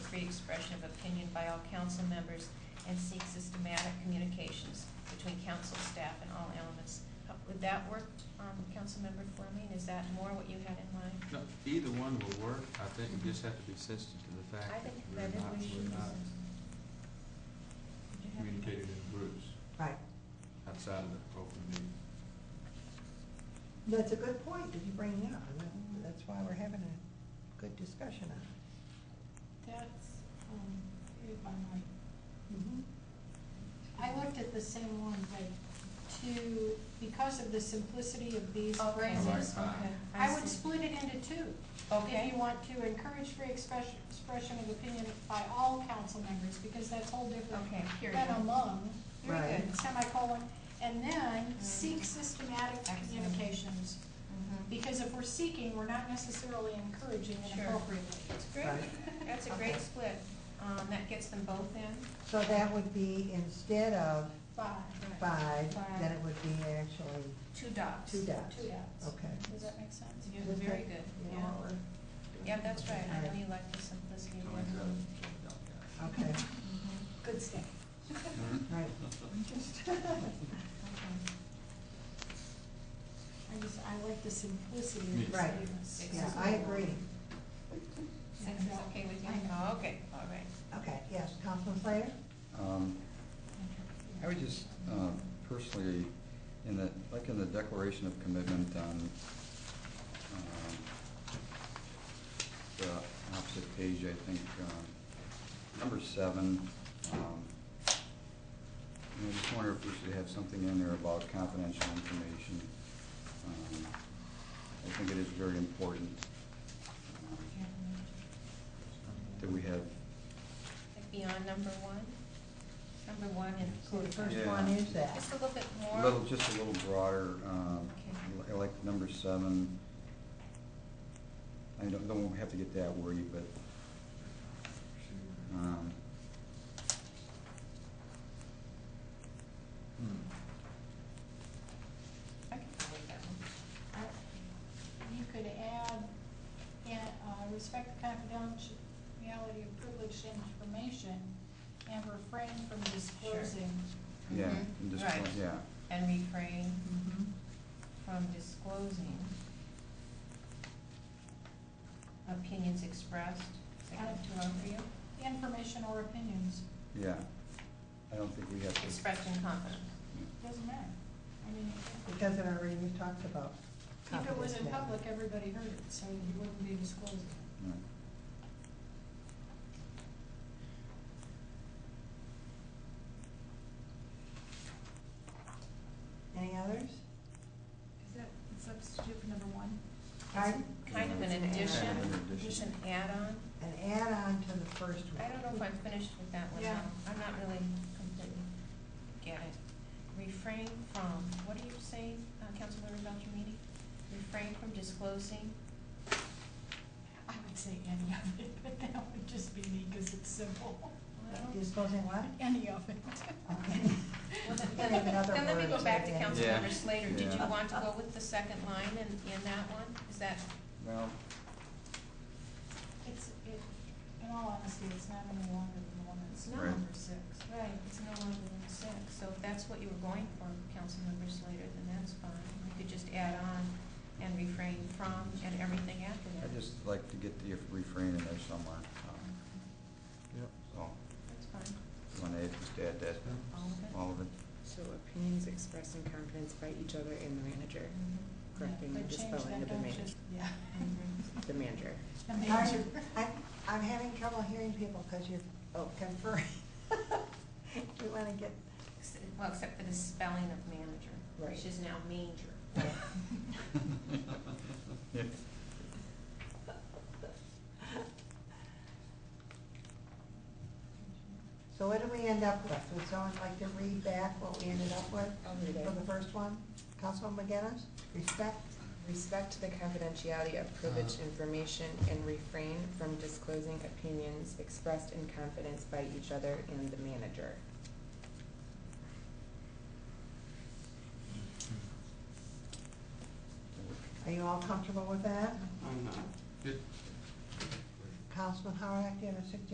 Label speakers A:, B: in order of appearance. A: free expression of opinion by all council members and seek systematic communications between council staff and all elements. How- Would that work, um, Councilmember Fleming? Is that more what you had in mind?
B: No, either one will work. I think we just have to be sensitive to the
A: I
B: fact that
A: think
B: we're
A: that is
B: not,
A: we should.
B: we're
A: be
B: not
A: sensitive. Did you have-
B: communicating in groups
C: Right.
B: outside of the open meeting.
C: That's a good point that you bring up, and that- that's why we're having a good discussion on it.
D: That's, um, if I might,
C: Mhm.
D: I looked at the same one, but to, because of the simplicity of these
A: Okay.
D: phrases,
B: Right.
A: Okay.
D: I would
A: see.
D: split it into two. If
A: Okay.
D: you want to encourage free expression, expression of opinion by all council members, because that's whole different
A: Okay, period.
D: than among,
A: Very
C: Right.
A: good.
D: semicolon. And then
A: Mhm.
D: seek systematic
A: Excellent.
D: communications,
A: Mhm.
D: because if we're seeking, we're not necessarily encouraging it
A: Sure.
D: appropriately.
A: That's great.
C: Right.
A: That's a great
C: Okay.
A: split. Um, that gets them both in.
C: So that would be instead of
D: Five.
C: five, then it
D: Five.
C: would be actually
A: Two dots.
C: two dots.
D: Two dots.
C: Okay.
D: Does that make sense?
A: Yeah, very good,
C: You
A: yeah.
C: know what we're-
A: Yeah, that's right. I know
C: Alright.
A: you like the simplicity of
B: So
A: one
B: we got-
A: room.
B: got
C: Okay,
A: Mhm.
D: Good stuff.
C: right.
A: Okay.
D: I just, I like the simplicity
B: Yeah.
D: of the
C: Right.
D: statements.
C: Yeah, I agree.
A: Six is okay with you?
D: I know.
A: Oh, okay, all right.
C: Okay, yes, Councilman Slater?
E: Um, I would just uh, personally, in the, like in the Declaration of Commitment on um, the opposite page, I think, um, number seven, um, and I just wonder if we should have something in there about confidential information. Um, I think it is very important um, that we have,
A: Like beyond number one? Number one in
C: So the
A: code.
C: first one
E: Yeah.
C: is that.
A: Just a little bit
E: a little,
A: more.
E: just a little broader, um,
A: Okay.
E: I like number seven. I don't, don't have to get that wordy, but,
B: that.
E: um,
B: Hmm.
A: I can go with that one.
D: You could add, yeah, uh, respect the confidentiality of privileged information and refrain from disclosing.
E: yeah,
A: Mhm.
E: and just,
A: Right.
E: yeah.
A: And refrain
C: Mhm.
A: from disclosing opinions expressed. Is that too long for you?
D: Information or opinions,
E: Yeah, I don't think we have to.
A: Expressed in confidence.
D: doesn't matter. I mean,
C: Because it already, we talked about
D: if it was in
C: confidence now.
D: public, everybody heard it, so you wouldn't be disclosing.
E: no.
C: Any others?
F: Is that substitute for number one?
C: Pardon?
A: Kind of an
C: It's an
A: addition,
E: add-on.
A: just an add-on.
C: An add-on to the first one.
A: I don't know if I'm finished with that one.
D: Yeah.
A: though. I'm not really completely get it. Refrain from, what are you saying, uh, Councilmember Beltramini? Refrain from disclosing,
D: I would say any of it, but that would just be me, because it's simple.
A: well,
C: Disclosing what?
D: Any of it.
C: Okay.
A: well, then,
C: They have another
A: then let me
C: word
A: go
C: to
A: back to
C: it, yeah.
A: Councilmember
E: Yeah.
A: Slater. Did you
E: Yeah.
A: want to go with the second line in, in that one? Is that,
E: Well,
D: It's, it, in all honesty, it's not any longer than the one that's
A: it's not
E: Right.
A: number six. Right, it's no longer than six. So if that's what you were going for, Councilmember Slater, then that's fine. You could just add on and refrain from and everything after that.
E: I'd just like to get the refrain in there somewhere, um,
B: Yep.
E: so,
A: That's fine.
E: when I just add that,
A: All of it?
E: all of it.
G: So opinions expressed in confidence by each other and the manager, correcting or
D: But change
G: dispelling
D: that,
G: of the
D: don't
G: manager,
D: just- Yeah.
G: the manager.
D: The
C: I'm-
D: major.
C: I'm, I'm having trouble hearing people because you're oh, conferring. We want to get,
A: Ex- Well, except for the spelling of manager,
G: Right.
A: which is now manger.
E: Yeah.
C: so what did we end up with? Would someone like to read back what we ended up with
G: I'll read it.
C: for the first one? Councilman McGinnis, respect?
G: Respect the confidentiality of privileged information and refrain from disclosing opinions expressed in confidence by each other and the manager.
C: Are you all comfortable with that?
B: Good.
C: Councilman Howard, do you have a suggestion?